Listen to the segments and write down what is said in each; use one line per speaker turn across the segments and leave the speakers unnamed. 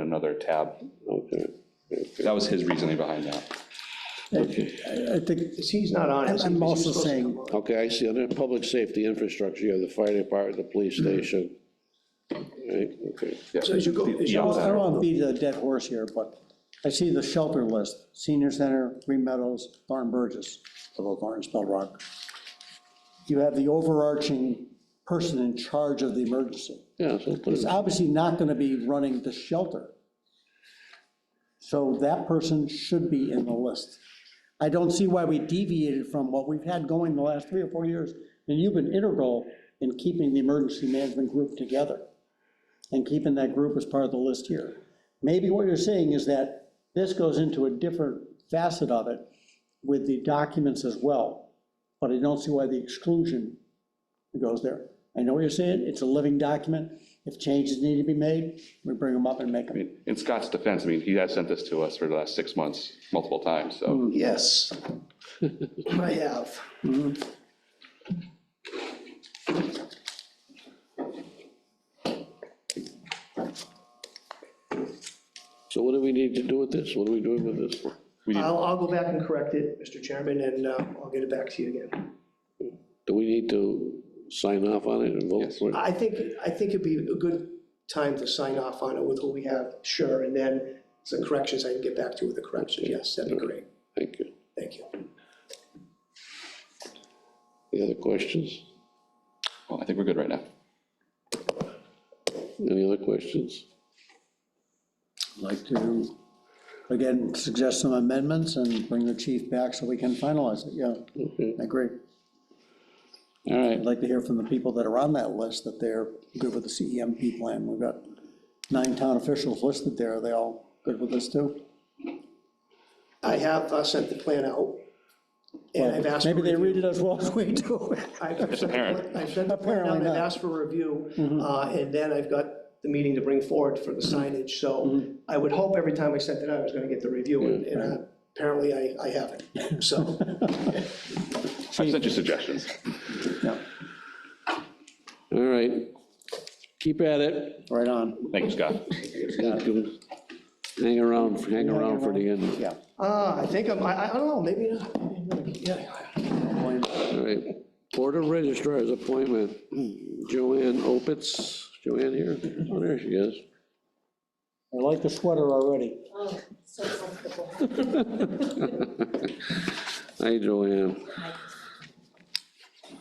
another tab.
Okay, okay.
That was his reasoning behind that.
I I think,
He's not on it.
I'm
He's
also
supposed to
saying,
Okay, I see, under public safety infrastructure, you have the fire department, the police station. Right, okay.
So as you go, as you
I
go
don't want to
through,
beat a dead horse here, but I see the shelter list, senior center, Green Meadows, Barn Burgess, although Barn spelled wrong. You have the overarching person in charge of the emergency.
Yeah, so put
It's
it,
obviously not going to be running the shelter. So that person should be in the list. I don't see why we deviated from what we've had going the last three or four years, and you've been integral in keeping the emergency management group together and keeping that group as part of the list here. Maybe what you're saying is that this goes into a different facet of it with the documents as well, but I don't see why the exclusion goes there. I know what you're saying, it's a living document, if changes need to be made, we bring them up and
I
make them.
mean, In Scott's defense, I mean, he has sent this to us for the last six months, multiple times, so.
yes. I have.
so what do we need to do with this? What are we doing with this?
we need-
I'll, I'll go back and correct it, Mr. Chairman, and uh, I'll get it back to you again.
Do we need to sign off on it and vote
Yes.
for it?
I think, I think it'd be a good time to sign off on it with who we have, sure, and then some corrections, I can get back to you with the corrections, yes, that'd be great,
Thank you.
thank you.
Any other questions?
Well, I think we're good right now.
Any other questions?
I'd Like to, again, suggest some amendments and bring the chief back so we can finalize it, yeah, I agree.
All right,
I'd like to hear from the people that are on that list, that they're good with the CEMP plan. We've got nine town officials listed there, are they all good with this too?
I have uh, sent the plan out, and I've asked. for
Maybe they
review.
read it as well as we do.
I've I've sent,
apparent.
the- I've sent the plan out,
Apparently
I've
not. Mm-hmm.
asked for review, uh, and then I've got the meeting to bring forward for the signage,
Mm-hmm.
so I would hope every time I sent it out, I was gonna get the review, and- and uh, apparently I, I haven't, so.
I've sent you suggestions.
Yeah,
all right. Keep at it.
Right on,
Thank you, Scott.
Thank you. Hang around, hang around for the end.
yeah.
Uh, I think I'm, I, I don't know, maybe, not. yeah,
All right. Board of Registrars appointment, Joanne Opitz. Joanne here? Oh, there she is.
I like the sweater already.
Oh, so comfortable.
Hi, Joanne.
Hi.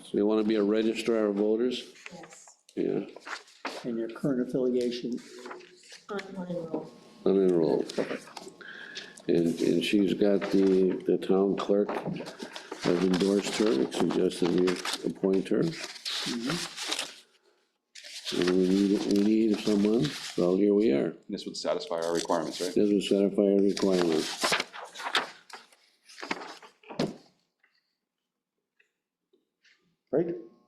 So you want to be a registrar of voters?
Yes,
Yeah,
And your current affiliation,
on one roll.
unenrolled. And, and she's got the, the town clerk has endorsed her, suggested we appoint her. And we need, we need someone, so here we are.
This would satisfy our requirements, right?
Doesn't satisfy our requirements.
right?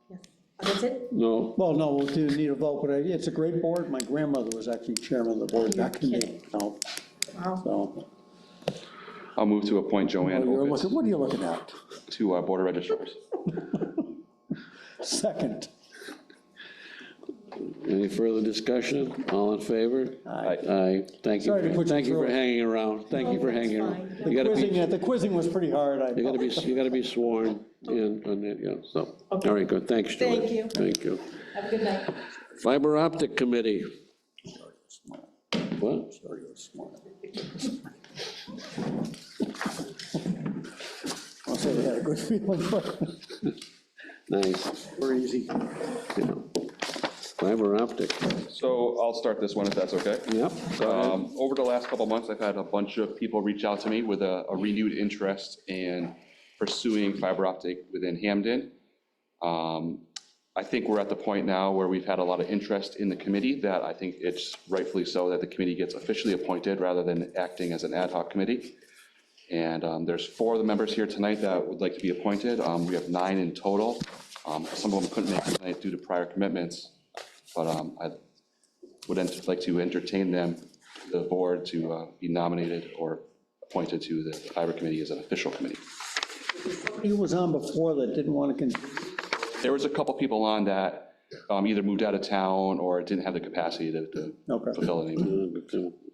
Yes. Oh, That's it?
No,
Well, no, we'll do need a vote, but I- it's a great board. My grandmother was actually chairman of the board back in the, no,
Wow.
so.
I'll move to appoint Joanne
Oh, you're
Opitz
looking- What are you looking at?
to our Board of Registrars.
Second.
any further discussion? All in favor?
Aye.
Aye, thank you,
Sorry to
for-
put you
thank you for
through it.
hanging around, thank you for
Oh, that's
hanging
fine.
around.
The
You gotta be,
Quizzing, it- the quizzing was pretty hard. I
you gotta be, you gotta be sworn in on that, yeah, so, all right, good, thanks, Stuart.
Thank you.
Thank you.
Have a good night.
Fiber optic committee. What?
Sorry, it was smart. I'll say we had a good feeling, but
Nice,
we're easy.
yeah. Fiber optic,
So I'll start this one if that's okay.
yep, go ahead.
Um, Over the last couple of months, I've had a bunch of people reach out to me with a a renewed interest in pursuing fiber optic within Hamden. Um, I think we're at the point now where we've had a lot of interest in the committee, that I think it's rightfully so that the committee gets officially appointed rather than acting as an ad hoc committee. And um, there's four of the members here tonight that would like to be appointed. Um, We have nine in total. Um, Some of them couldn't make it tonight due to prior commitments, but um, I would ent- like to entertain them, the board, to uh, be nominated or appointed to the fiber committee as an official committee.
He was on before that didn't want to continue.
There was a couple people on that um, either moved out of town or didn't have the capacity to- to
Okay.
fulfill it anymore.
Uh,